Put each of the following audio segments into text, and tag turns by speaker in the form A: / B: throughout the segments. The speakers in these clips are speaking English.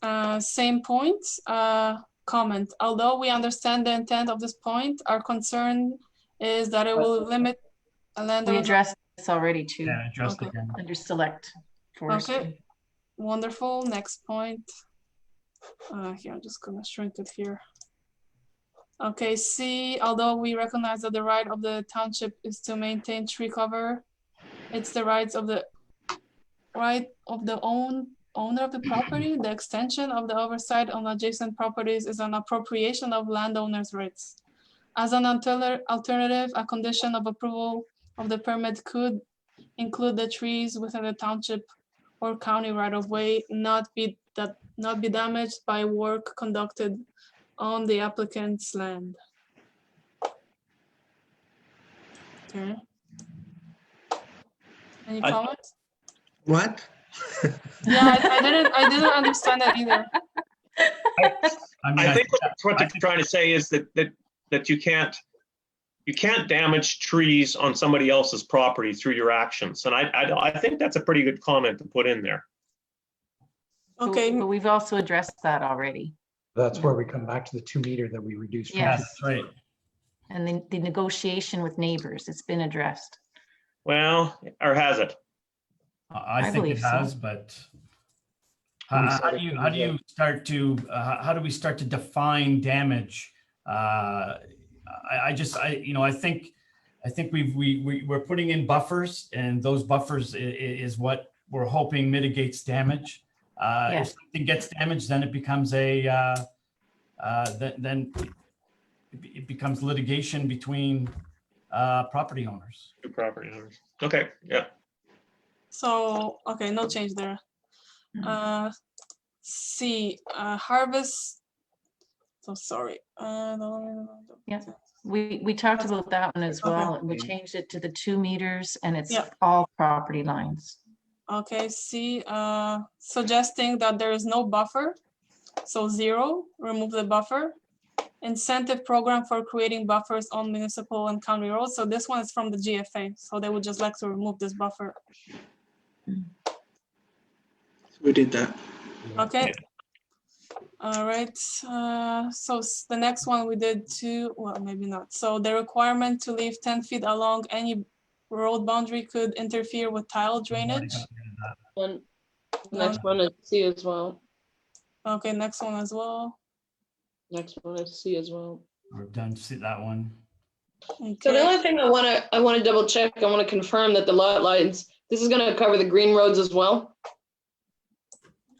A: uh, same point, uh, comment. Although we understand the intent of this point, our concern is that it will limit a
B: We
A: landowner.
B: addressed this already too,
C: Yeah, addressed
A: Okay.
C: again.
B: under select forestry.
A: Wonderful, next point. Uh, here, I'm just gonna shrink it here. Okay, C, although we recognize that the right of the township is to maintain tree cover, it's the rights of the, right of the own, owner of the property, the extension of the oversight on adjacent properties is an appropriation of landowner's rights. As an alter- alternative, a condition of approval of the permit could include the trees within the township or county right of way not be that not be damaged by work conducted on the applicant's land. Okay. Any
D: I-
A: comments?
E: What?
A: Yeah, I, I didn't, I didn't understand that either.
C: I mean,
D: I
C: I-
D: think what- what they're trying to say is that, that, that you can't, you can't damage trees on somebody else's property through your actions. And I, I, I think that's a pretty good comment to put in there.
B: But-
A: Okay,
B: But we've also addressed that already.
F: That's where we come back to the two meter that we reduced. from
B: Yes.
C: that's right.
B: And then the negotiation with neighbors, it's been addressed.
D: Well, or has it?
C: I
B: I
C: I think
B: believe
C: it
B: so.
C: has, but how
F: said
C: how
F: it
C: do you,
F: can
C: how
F: be
C: do you start to, uh, how do we start to define damage? Uh, I, I just, I, you know, I think, I think we've, we, we, we're putting in buffers and those buffers i- i- is what we're hoping mitigates damage. Uh, if
B: Yes.
C: something gets damaged, then it becomes a, uh, uh, then, then it be- it becomes litigation between, uh, property owners.
D: Two property owners. Okay, yeah.
A: so, okay, no change there.
B: Mhm.
A: Uh, C, uh, harvest. So sorry. uh, no,
B: Yeah. We, we talked about that one as
A: Okay.
B: well. and We changed it to the two meters and it's
A: Yeah.
B: all property lines.
A: Okay, C, uh, suggesting that there is no buffer. So zero, remove the buffer. Incentive program for creating buffers on municipal and county roads. So this one is from the GFA. So they would just like to remove this buffer.
E: We did that.
A: Okay. All right, uh, so s- the next one we did too, well, maybe not. So the requirement to leave ten feet along any road boundary could interfere with tile
C: We've already
A: drainage.
C: gotten rid of that.
G: One,
A: No.
G: next one is C as well.
A: Okay, next one as well.
G: Next one is C as well.
C: We're done, see that one.
G: So the
A: Okay.
G: only thing I want to, I want to double check, I want to confirm that the lot lines, this is going to cover the green roads as well?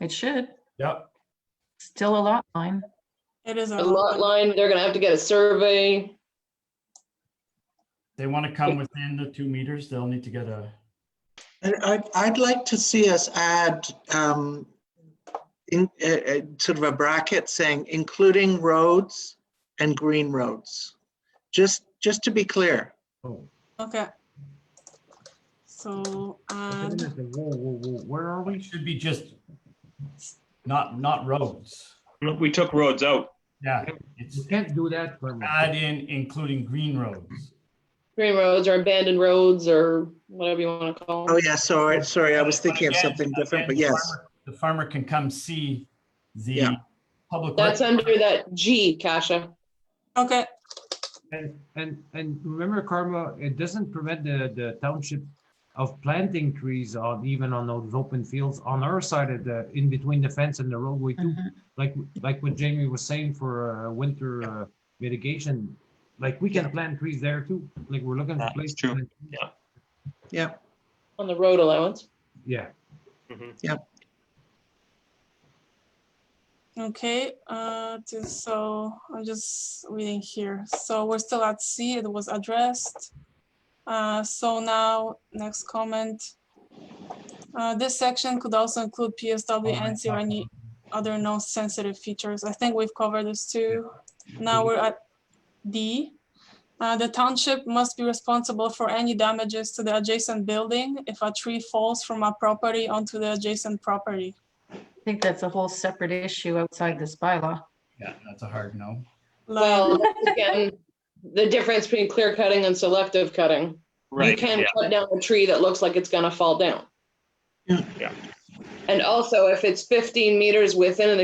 B: It should,
C: Yep.
B: still a lot line.
A: It is. a
G: The lot line, they're going to have to get a survey.
C: They want to come within the two meters, they'll need to get a,
E: And I'd, I'd like to see us add, um, in, uh, uh, sort of a bracket saying including roads and green roads. Just, just to be clear.
F: Oh,
A: Okay. So, um,
F: but then
A: and
F: there's the whoa, whoa, whoa, where are we?
C: should be just not, not roads.
D: We took roads out.
C: Yeah, it's
F: You can't do that. Verma.
C: add in including green roads.
G: Green roads or abandoned roads or whatever you want to call
E: Oh,
G: them.
E: yeah, sorry, sorry, I was
C: But
E: thinking of
C: again-
E: something different,
C: again,
E: but
C: the
E: yes.
C: farmer- The farmer can come see the
E: Yeah.
C: public.
G: That's
C: record.
G: under that G, Kasia.
A: okay,
F: And, and, and remember Karma, it doesn't prevent the, the township of planting trees on, even on those open fields on our side of the, in between the fence and the roadway too.
A: Mm-hmm.
F: Like, like what Jamie was saying for, uh, winter uh, mitigation, like we can plant trees there too, like we're looking for
D: That's
F: places.
D: true.
E: Yeah,
G: on the road allowance.
F: Yeah.
A: okay, uh, to- so I'm just reading here. So we're still at C, it was addressed. Uh, so now, next comment. Uh, this section could also include PSW and see any other non-sensitive features. I think we've covered this too.
C: Mm-hmm.
A: Now we're at D. Uh, the township must be responsible for any damages to the adjacent building if a tree falls from a property onto the adjacent property.
B: I think that's a whole separate issue outside this bylaw.
C: Yeah, that's a hard no.
A: Like,
G: Well, again, the difference between clear cutting and selective cutting. You
D: Right.
G: can
D: yeah.
G: cut down a tree that looks like it's going to fall down.
E: Yeah.
D: Yeah.
G: And also, if it's 15 meters within an